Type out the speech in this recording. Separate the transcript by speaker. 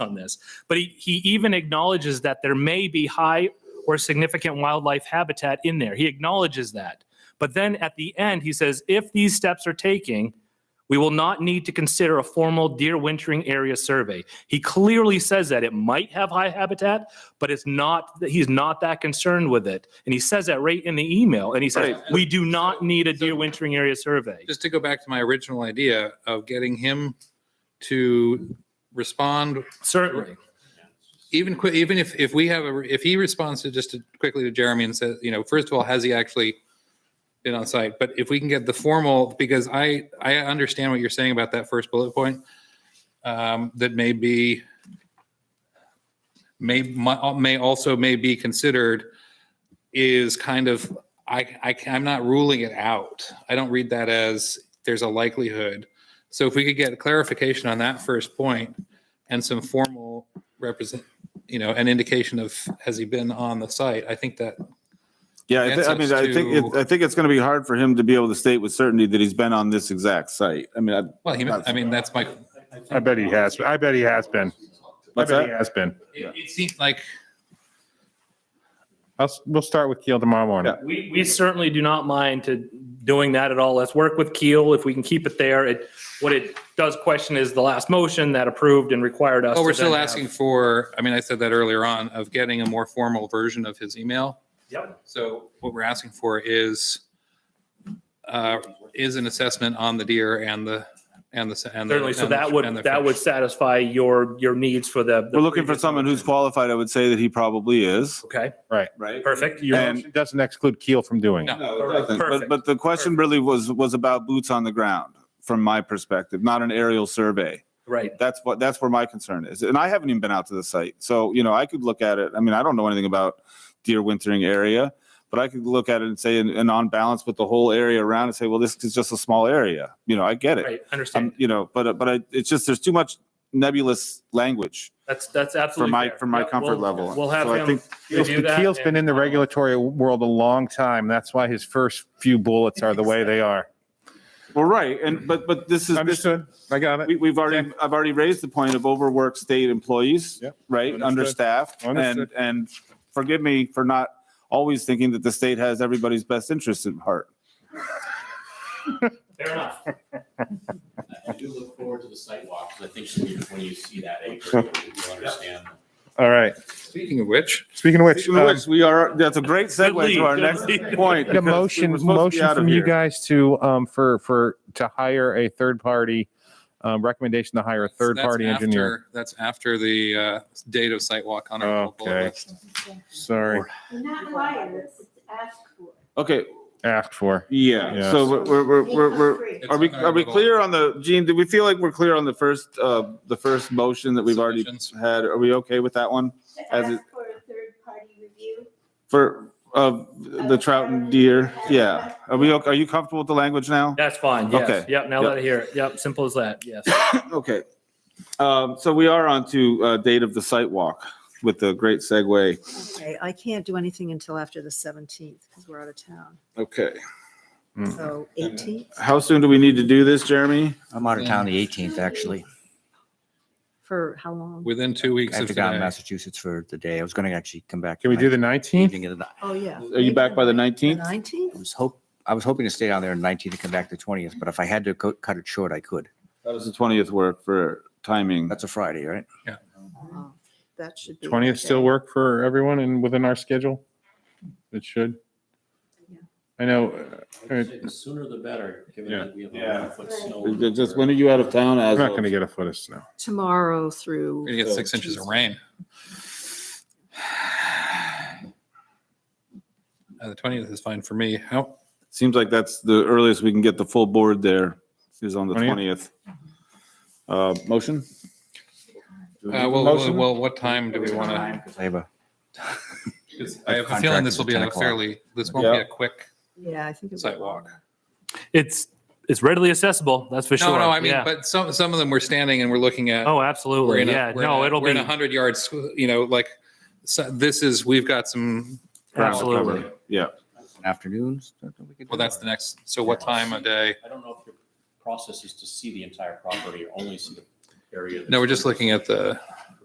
Speaker 1: on this. But he, he even acknowledges that there may be high or significant wildlife habitat in there. He acknowledges that. But then at the end, he says, if these steps are taken, we will not need to consider a formal deer wintering area survey. He clearly says that it might have high habitat, but it's not, he's not that concerned with it. And he says that right in the email. And he says,
Speaker 2: Right.
Speaker 1: we do not need a deer wintering area survey.
Speaker 2: just to go back to my original idea of getting him to respond,
Speaker 1: Certainly.
Speaker 2: even qui- even if, if we have a, if he responds to just to- quickly to Jeremy and says, you know, first of all, has he actually been on site? But if we can get the formal, because I, I understand what you're saying about that first bullet point, um, that may be, may, mi- may also may be considered is kind of, I, I, I'm not ruling it out. I don't read that as there's a likelihood. So if we could get clarification on that first point and some formal represent, you know, an indication of, has he been on the site? I think that,
Speaker 3: Yeah, I, thi- I
Speaker 2: Gets
Speaker 3: mean,
Speaker 2: us
Speaker 3: I think, it-
Speaker 2: to-
Speaker 3: I think it's going to be hard for him to be able to state with certainty that he's been on this exact site. I mean, I,
Speaker 2: well, he, I mean, that's my,
Speaker 4: I bet he has. I bet he has been. I
Speaker 3: what's
Speaker 4: bet he
Speaker 3: that?
Speaker 4: has been.
Speaker 2: it it seems like,
Speaker 4: I'll, s- we'll start with Keel tomorrow morning.
Speaker 3: Yeah.
Speaker 1: We, we certainly do not mind to doing that at all. Let's work with Keel if we can keep it there. It, what it does question is the last motion that approved and required us.
Speaker 2: oh,
Speaker 1: to
Speaker 2: we're
Speaker 1: then
Speaker 2: still
Speaker 1: have-
Speaker 2: asking for, I mean, I said that earlier on, of getting a more formal version of his email.
Speaker 1: Yep.
Speaker 2: So what we're asking for is, uh, is an assessment on the deer and the, and the. and the-
Speaker 1: Certainly. So
Speaker 2: and the-
Speaker 1: that would,
Speaker 2: and the
Speaker 1: that
Speaker 2: fish.
Speaker 1: would satisfy your, your needs for the. the
Speaker 3: We're looking for
Speaker 1: previous
Speaker 3: someone who's
Speaker 1: motion.
Speaker 3: qualified. I would say that he probably is,
Speaker 1: Okay,
Speaker 3: right?
Speaker 1: perfect. Your
Speaker 3: And-
Speaker 1: motion-
Speaker 4: It Doesn't exclude Keel from doing it.
Speaker 2: No.
Speaker 3: No, it doesn't. But,
Speaker 1: Perfect.
Speaker 3: but the question really was, was about boots on the ground from my perspective, not an aerial survey.
Speaker 1: Right.
Speaker 3: That's what, that's where my concern is. And I haven't even been out to the site. So, you know, I could look at it. I mean, I don't know anything about deer wintering area, but I could look at it and say, and, and on balance with the whole area around and say, well, this is just a small area. You know, I get it.
Speaker 1: Right.
Speaker 3: Um,
Speaker 1: Understand.
Speaker 3: you know, but, but I, it's just, there's too much nebulous language
Speaker 1: That's, that's
Speaker 3: for
Speaker 1: absolutely
Speaker 3: my,
Speaker 1: fair.
Speaker 3: for my
Speaker 1: Yeah,
Speaker 3: comfort
Speaker 1: we'll-
Speaker 3: level.
Speaker 1: We'll have
Speaker 3: So I
Speaker 1: him
Speaker 3: think-
Speaker 4: Keel's-
Speaker 1: review that.
Speaker 4: Keel's been
Speaker 1: and- uh,
Speaker 4: in the regulatory world a long time. That's why his first few bullets are the way they are.
Speaker 3: Well, right. And, but, but this is, this
Speaker 4: Understood. I got
Speaker 3: We,
Speaker 4: it.
Speaker 3: we've already, I've already raised the point of overworked state employees,
Speaker 4: Yep.
Speaker 3: right?
Speaker 4: Understood.
Speaker 3: Understaffed. And,
Speaker 4: Understood.
Speaker 3: and forgive me for not always thinking that the state has everybody's best interest at heart.
Speaker 1: Fair enough.
Speaker 5: I do look forward to the sidewalk, because I think when you- when you see that acre, you'll understand.
Speaker 4: All right.
Speaker 2: Speaking of which,
Speaker 4: Speaking of which,
Speaker 3: Speaking of
Speaker 4: um,
Speaker 3: which, we are, that's a great segue
Speaker 1: lead,
Speaker 3: to our
Speaker 1: good
Speaker 3: next
Speaker 1: lead.
Speaker 3: point.
Speaker 4: Need a
Speaker 3: because we
Speaker 4: motion,
Speaker 3: were supposed to be
Speaker 4: motion
Speaker 3: out of
Speaker 4: from you
Speaker 3: here.
Speaker 4: guys to, um, for, for, to hire a third party, um, recommendation to hire a third
Speaker 2: That's
Speaker 4: party engineer.
Speaker 2: after- That's after the uh, date of site walk on our bullet
Speaker 4: Okay.
Speaker 2: list.
Speaker 4: Sorry,
Speaker 6: You're not required, it's it's asked for.
Speaker 3: Okay,
Speaker 4: asked for.
Speaker 3: yeah.
Speaker 4: Yeah.
Speaker 3: So we're, we're, we're,
Speaker 6: It's
Speaker 3: we're, we're-
Speaker 6: free.
Speaker 3: are we, are we clear on the, Gene, did we feel like we're clear on the first, uh, the first motion that we've already
Speaker 2: Submissions.
Speaker 3: had? Are we okay with that one?
Speaker 6: To
Speaker 3: as it-
Speaker 6: ask for a third-party review.
Speaker 3: For, of the trout and deer? Yeah. Are we, ok- are you comfortable with the language now?
Speaker 1: That's fine. Yes.
Speaker 3: Okay.
Speaker 1: Yep. Now
Speaker 3: Yep.
Speaker 1: let it hear it. Yep. Simple as that. Yes.
Speaker 3: Okay. Um, so we are on to, uh, date of the site walk with the great segue.
Speaker 7: Okay, I can't do anything until after the 17th because we're out of town.
Speaker 3: Okay. Hmm.
Speaker 4: Mm.
Speaker 7: So 18th
Speaker 3: How soon do we need to do this, Jeremy?
Speaker 8: I'm out of town the 18th, actually.
Speaker 7: for how long?
Speaker 2: Within two weeks
Speaker 8: I
Speaker 2: of
Speaker 8: have to go out to
Speaker 2: today.
Speaker 8: Massachusetts for the day. I was going to actually come back.
Speaker 4: Can we do the
Speaker 8: tonight,
Speaker 4: nineteenth?
Speaker 8: evening of the night.
Speaker 7: Oh, yeah.
Speaker 3: Are you back by the 19th?
Speaker 7: 19th?
Speaker 8: I was hope, I was hoping to stay down there on 19th and come back the 20th, but if I had to co- cut it short, I could.
Speaker 3: How does the 20th work for timing?
Speaker 8: That's a Friday, right?
Speaker 7: Oh, That should be.
Speaker 4: Twentieth still
Speaker 7: okay.
Speaker 4: work for everyone and within our schedule? It should.
Speaker 7: Yeah.
Speaker 4: I know, uh,
Speaker 5: I'd say The sooner the better, given
Speaker 4: Yeah.
Speaker 5: that we have
Speaker 3: Yeah.
Speaker 5: a foot snow.
Speaker 3: Just, when are you out of town as
Speaker 4: I'm not
Speaker 3: of?
Speaker 4: gonna get a foot of snow.
Speaker 7: Tomorrow
Speaker 2: We're
Speaker 7: through,
Speaker 2: gonna get six inches of rain. Uh, The twentieth is fine for me. How,
Speaker 3: Seems like that's the earliest we can get the full board there is on the
Speaker 4: 20th?
Speaker 3: 20th. Uh, motion?
Speaker 2: uh, well, well,
Speaker 4: Motion?
Speaker 2: well, what time do we want to?
Speaker 8: Because I have a.
Speaker 2: I have a feeling this will be a fairly, this won't be
Speaker 3: Yeah.
Speaker 2: a quick.
Speaker 7: yeah, I think. it was
Speaker 2: Sidewalk.
Speaker 7: longer.
Speaker 1: It's, it's readily accessible. That's for sure.
Speaker 2: No, no, I mean,
Speaker 1: Yeah.
Speaker 2: but some, some of them we're standing and we're looking at.
Speaker 1: Oh,
Speaker 2: we're
Speaker 1: absolutely.
Speaker 2: in a-
Speaker 1: Yeah.
Speaker 2: we're in
Speaker 1: No,
Speaker 2: a-
Speaker 1: it'll
Speaker 2: We're in a
Speaker 1: be,
Speaker 2: hundred yards, you know, like, so this is, we've got some. ground to cover.
Speaker 1: absolutely.
Speaker 3: Yeah.
Speaker 8: Afternoons.
Speaker 2: Well, that's the next, so what time of day?
Speaker 5: I don't know if your process is to see the entire property or only see the area.
Speaker 2: No, we're
Speaker 5: that's-
Speaker 2: just looking at the,